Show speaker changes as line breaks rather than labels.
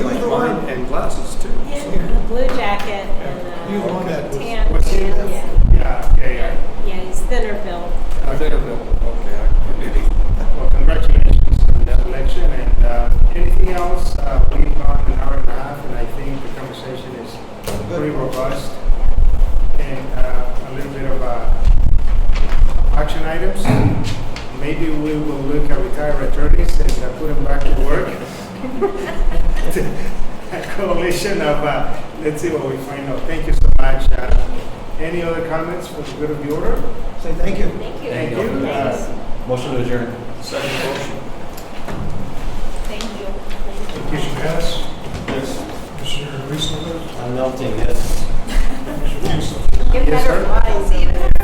wine and glasses too.
And a blue jacket
You
and
want that
a
with-
tan.
with
tan,
him?
yeah.
Yeah, yeah, yeah.
Yeah, he's thinner built.
I think I'm, okay, I maybe.
Well, congratulations on the selection and uh, anything else? Uh, we've gone an hour and a half and I think the conversation is pretty robust and uh, a little bit of uh, action items. Maybe we will look at retired attorneys and uh, put them back to work. A coalition of, uh, let's see what we find out. Thank you so much. Uh, Any other comments for the good of the order?
Say thank you.
Thank you.
Thank you.
Thank you. Uh,
Thanks.
Motion to adjourn.
Second.